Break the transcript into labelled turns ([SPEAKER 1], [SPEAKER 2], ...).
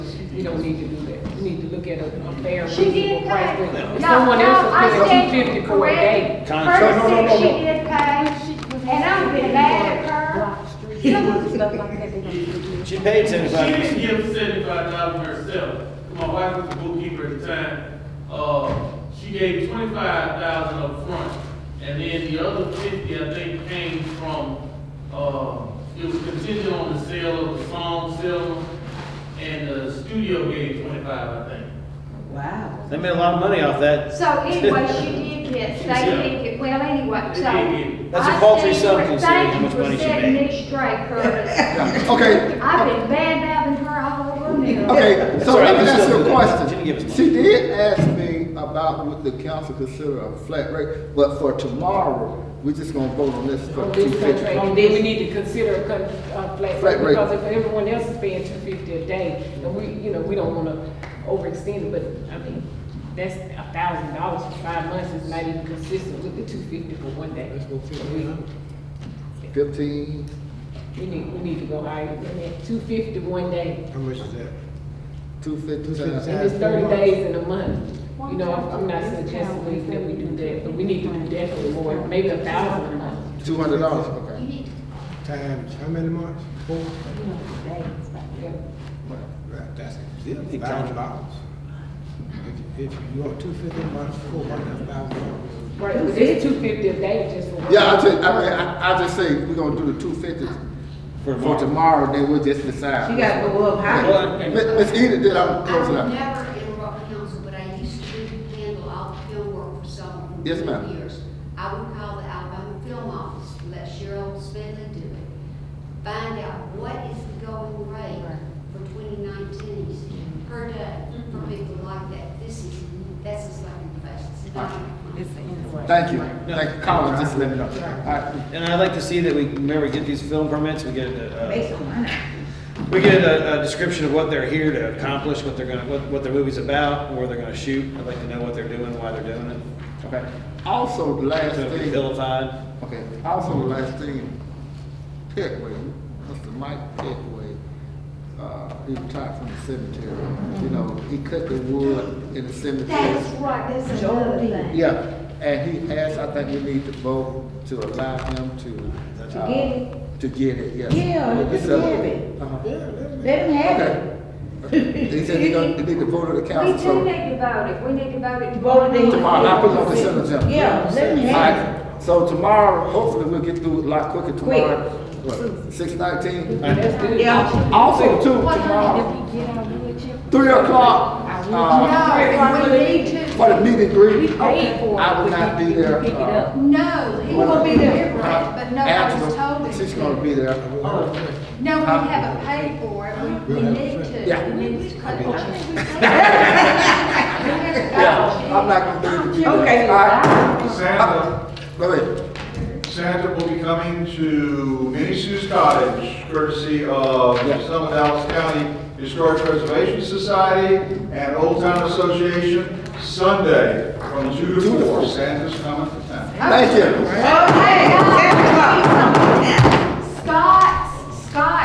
[SPEAKER 1] we don't need to do that. We need to look at a a fair,
[SPEAKER 2] She
[SPEAKER 1] reasonable
[SPEAKER 2] did
[SPEAKER 1] price.
[SPEAKER 2] pay.
[SPEAKER 1] when-
[SPEAKER 2] No,
[SPEAKER 1] If someone else
[SPEAKER 2] no, I
[SPEAKER 1] is paying
[SPEAKER 2] stand
[SPEAKER 1] two fifty for a day.
[SPEAKER 2] corrected.
[SPEAKER 3] Time.
[SPEAKER 2] Her
[SPEAKER 3] No, no, no,
[SPEAKER 2] sick, she
[SPEAKER 3] no, no.
[SPEAKER 2] did pay, and I'm glad at her.
[SPEAKER 3] She paid
[SPEAKER 4] She
[SPEAKER 3] seventy-five.
[SPEAKER 4] didn't give seventy-five thousand herself. My wife was the bookkeeper at the time. Uh, she gave twenty-five thousand up front, and then the other fifty, I think, came from, uh, it was contingent on the sale of the song sale, and the studio gave twenty-five, I think.
[SPEAKER 5] Wow.
[SPEAKER 3] They made a lot of money off that.
[SPEAKER 2] So anyway, she did get, they did get, well, anyway, so.
[SPEAKER 3] That's a
[SPEAKER 2] I
[SPEAKER 3] paltry
[SPEAKER 2] stand
[SPEAKER 3] sum
[SPEAKER 2] for-
[SPEAKER 3] considering how
[SPEAKER 2] thank you
[SPEAKER 3] much
[SPEAKER 2] for
[SPEAKER 3] money she
[SPEAKER 2] setting
[SPEAKER 3] made.
[SPEAKER 2] me straight, Curtis.
[SPEAKER 6] Okay,
[SPEAKER 2] I've been bad mouthing her all over now.
[SPEAKER 6] okay, so
[SPEAKER 3] Sorry,
[SPEAKER 6] let
[SPEAKER 3] I'm
[SPEAKER 6] me ask
[SPEAKER 3] still-
[SPEAKER 6] you a
[SPEAKER 3] Jimmy, give us
[SPEAKER 6] question.
[SPEAKER 3] one.
[SPEAKER 6] She did ask me about would the council consider a flat rate, but for tomorrow, we're just gonna vote on this for
[SPEAKER 1] On
[SPEAKER 6] two
[SPEAKER 1] this contract,
[SPEAKER 6] fifty.
[SPEAKER 1] and then we need to consider a con, uh, flat
[SPEAKER 6] Flat
[SPEAKER 1] rate,
[SPEAKER 6] rate.
[SPEAKER 1] because if everyone else is paying two fifty a day, and we, you know, we don't wanna overextend it, but, I mean, that's a thousand dollars for five months, is not even consistent with the two fifty for one day.
[SPEAKER 6] Fifteen,
[SPEAKER 1] We need, we need to go higher, than that. two fifty one day,
[SPEAKER 7] How much is that?
[SPEAKER 6] two fifty
[SPEAKER 1] and
[SPEAKER 6] times.
[SPEAKER 1] it's thirty days in a month. You know, I'm I'm not suggesting that we do that, but we need to do definitely more, maybe a thousand a month.
[SPEAKER 6] Two hundred dollars, okay.
[SPEAKER 7] Times, how many months? Four?
[SPEAKER 1] Yeah.
[SPEAKER 7] Right, that's
[SPEAKER 3] Yeah,
[SPEAKER 7] it,
[SPEAKER 3] big time.
[SPEAKER 7] thousand dollars. If if you want two fifty months, four hundred thousand dollars.
[SPEAKER 1] Right, but it's two fifty a day just for.
[SPEAKER 6] Yeah, I just, I mean, I, I just say we're gonna do the two fifty
[SPEAKER 3] For
[SPEAKER 6] for
[SPEAKER 3] tomorrow.
[SPEAKER 6] tomorrow, then we'll just decide.
[SPEAKER 5] She gotta go up higher.
[SPEAKER 3] Well, and-
[SPEAKER 6] Miss Edith, did I
[SPEAKER 8] I
[SPEAKER 6] close it
[SPEAKER 8] would
[SPEAKER 6] out?
[SPEAKER 8] never interrupt council, but I used to do handle all the field work for someone. for
[SPEAKER 6] Yes, ma'am.
[SPEAKER 8] many Years. I would call the Alabama Film Office, let Cheryl Smedley do it. Find out what is the going rate for 2019 per day for people like that. This is, that's just like in the face. It's not-
[SPEAKER 6] Thank you, thank you, Colin, just let me know. All right.
[SPEAKER 3] And I'd like to see that we, whenever we get these film permits, we get a,
[SPEAKER 5] Based on mine.
[SPEAKER 3] a- we get a, a description of what they're here to accomplish, what they're gonna, what, what their movie's about, where they're gonna shoot. I'd like to know what they're doing, why they're doing it.
[SPEAKER 6] Okay, also, the
[SPEAKER 3] It's
[SPEAKER 6] last
[SPEAKER 3] gonna be
[SPEAKER 6] thing.
[SPEAKER 3] vilified.
[SPEAKER 6] Okay, also the last thing, Peckway, Mr. Mike Peckway, uh, he retired from the cemetery. You know, he cut the wood in the cemetery.
[SPEAKER 2] That's right, that's another thing.
[SPEAKER 6] Yeah, and he asked, I think we need to vote to allow him to. uh,
[SPEAKER 5] To get it.
[SPEAKER 6] To get it, yes.
[SPEAKER 5] Yeah, just
[SPEAKER 6] So-
[SPEAKER 5] give it.
[SPEAKER 6] Uh-huh.
[SPEAKER 5] Let them have
[SPEAKER 6] Okay.
[SPEAKER 5] it.
[SPEAKER 6] He said he gonna, he need to vote to the
[SPEAKER 2] We
[SPEAKER 6] council, so.
[SPEAKER 2] do need to vote it, we need to vote it.
[SPEAKER 5] Voted in.
[SPEAKER 6] Tomorrow, I'll put it on the consent agenda.
[SPEAKER 5] Yeah, let them
[SPEAKER 6] All
[SPEAKER 5] have
[SPEAKER 6] right, so tomorrow, hopefully we'll get through it a lot quicker tomorrow. What, six nineteen?
[SPEAKER 1] That's
[SPEAKER 5] it.
[SPEAKER 1] good.
[SPEAKER 5] Yeah.
[SPEAKER 6] Also, too, tomorrow, three o'clock, uh,
[SPEAKER 2] No, we need
[SPEAKER 6] for
[SPEAKER 2] to.
[SPEAKER 6] the meet and greet.
[SPEAKER 2] paid for it.
[SPEAKER 6] I will not be there.
[SPEAKER 1] Pick it up.
[SPEAKER 8] No, he won't be there,
[SPEAKER 6] uh,
[SPEAKER 8] but no, I was
[SPEAKER 6] Angela,
[SPEAKER 8] told it.
[SPEAKER 6] She's gonna be there.
[SPEAKER 8] No, we
[SPEAKER 6] Huh?
[SPEAKER 8] haven't paid for it, we, we
[SPEAKER 7] We'll have
[SPEAKER 8] need
[SPEAKER 7] to.
[SPEAKER 8] to.
[SPEAKER 6] Yeah.
[SPEAKER 8] We need to cut it. I think we paid.
[SPEAKER 6] Yeah, I'm not gonna be there.
[SPEAKER 5] Okay.
[SPEAKER 6] All right.
[SPEAKER 9] Santa,
[SPEAKER 6] Wait, wait.
[SPEAKER 9] Santa will be coming to Minnie Sue's Cottage courtesy of
[SPEAKER 6] Yeah.
[SPEAKER 9] the Summit Dallas County Historic Preservation Society and Old Town Association Sunday from two to four. Santa's coming to town.
[SPEAKER 8] Oh,
[SPEAKER 6] Thank you.
[SPEAKER 5] Okay, seven o'clock.